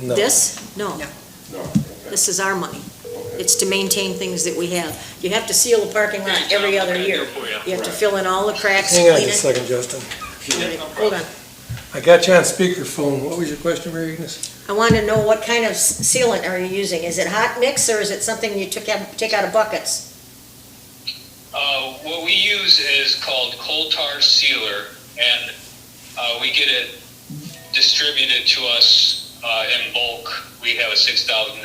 No. This? No, No, okay, this is our money. okay. It's to maintain things that we have. You have to seal the parking lot every other year. You have to fill in all the cracks, Hang on clean just it. a second, Justin. All right, Hold on. I got you on speakerphone. What was your question, Mary Agnes? I want to know what kind of s- sealant are you using? Is it hot mix or is it something you took out, take out of buckets? Uh, what we use is called coal tar sealer, and uh, we get it distributed to us uh, in bulk. We have a 6,000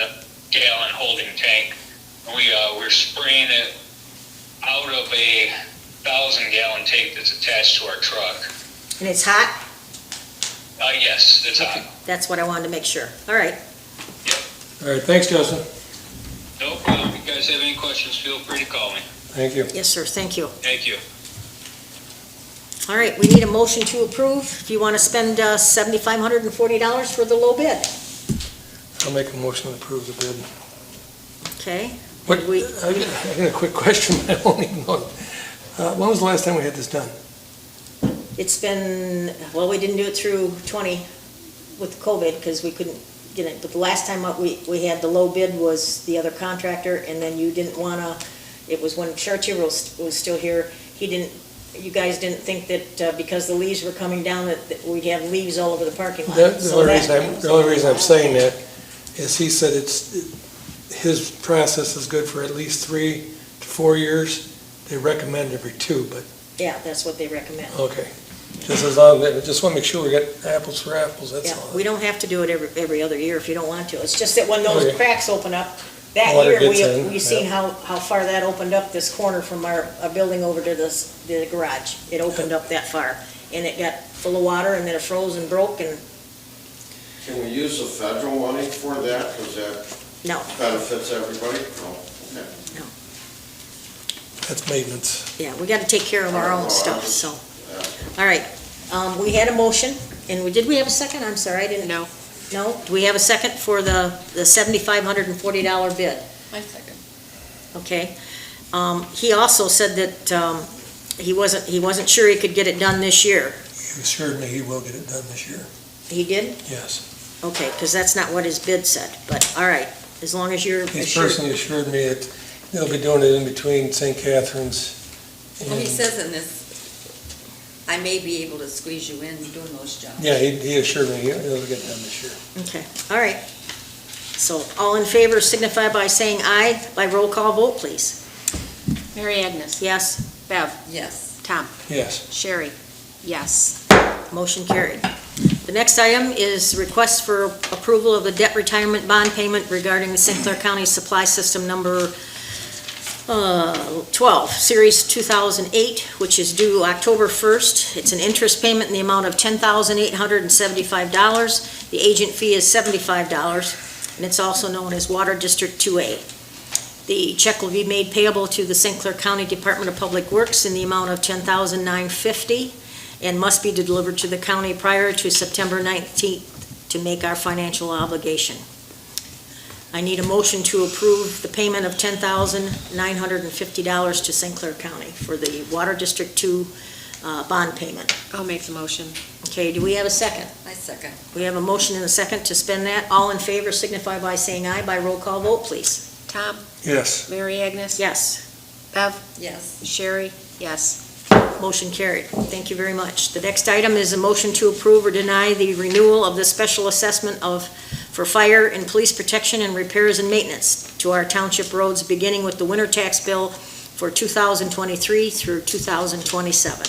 gallon holding tank. We, uh, we're spraying it out of a 1,000 gallon tank that's attached to our truck. And it's hot? Uh, yes, it's hot. That's what I wanted to make sure. All right. All right, thanks, Justin. No problem. If you guys have any questions, feel free to call me. Thank you. Yes, sir. Thank you. Thank you. All right, we need a motion to approve. If you want to spend uh, $7,540 for the low bid. I'll make a motion to approve the bid. Okay, What, Did we- I got I got a quick question, I don't even know. Uh, When was the last time we had this done? it's been, well, we didn't do it through 20 with COVID because we couldn't get it. But the last time out we, we had the low bid was the other contractor and then you didn't want to, it was when Chartier was, was still here. He didn't, you guys didn't think that uh, because the leaves were coming down that that we'd have leaves all over the parking lot. The the So only that- reason I'm, the only reason I'm saying that is he said it's, his process is good for at least three to four years. They recommend every two, but, Yeah, that's what they recommend. okay. Just as long, as just want to make sure we get apples for apples, that's Yeah, all. we don't have to do it every, every other year if you don't want to. It's just that when those Okay. cracks open up, that Oh, Water year, gets we, in, we seen yeah. how, how far that opened up this corner from our, a building over to this, the garage. It opened up that far, and it got full of water, and then it froze and broke, and Can we use the federal money for that, because that no, benefits everybody? No, okay. That's maintenance. yeah, we gotta take care of our own Oh, stuff, I'm- so. Yeah. All right, um, we had a motion, and we, did we have a second? I'm sorry, I didn't. No. No? Do we have a second for the, the seventy-five hundred and forty dollar bid? My second. Okay. Um, He also said that um, he wasn't, he wasn't sure he could get it done this year. He assured me he will get it done this year, He did? yes. Okay, because that's not what his bid said, but all right, as long as you're He's assured. personally assured me that they'll be doing it in between St. Catherine's. Well, he and- says in this, I may be able to squeeze you in doing those jobs. Yeah, he, he assured me he'll he'll get it done this year. Okay, all right. So all in favor signify by saying aye by roll call vote, please. Mary Agnes? Yes, Bev? Yes. Tom? Yes, Sherry? Yes. motion carried. The next item is request for approval of the debt retirement bond payment regarding the St. Clair County Supply System number uh, 12, Series 2008, which is due October 1st. It's an interest payment in the amount of $10,875. The agent fee is $75, and it's also known as Water District 2A. The check will be made payable to the St. Clair County Department of Public Works in the amount of $10,950 and must be delivered to the county prior to September 19th to make our financial obligation. I need a motion to approve the payment of $10,950 to St. Clair County for the Water District 2 uh, bond payment. I'll make the motion. Okay, do we have a second? My second. We have a motion and a second to spend that. All in favor signify by saying aye by roll call vote, please. Tom? yes. Mary Agnes? Yes, Bev? Yes. Sherry? Yes. motion carried. Thank you very much. The next item is a motion to approve or deny the renewal of the special assessment of, for fire and police protection and repairs and maintenance to our township roads, beginning with the winter tax bill for 2023 through 2027.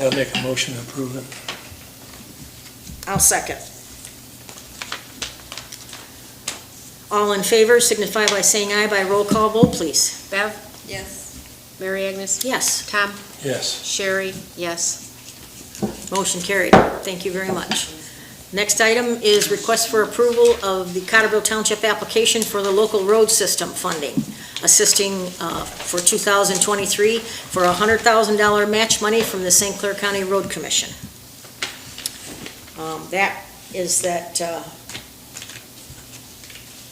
I'll make a motion to approve it. I'll second. All in favor signify by saying aye by roll call vote, please. Bev? Yes. Mary Agnes? Yes. Tom? Yes, Sherry? Yes. Motion carried. Thank you very much. Next item is request for approval of the Cotterville Township application for the local road system funding, assisting uh, for 2023 for a $100,000 match money from the St. Clair County Road Commission. Um, That is that uh,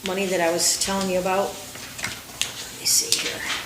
money that I was telling you about. Let me see here.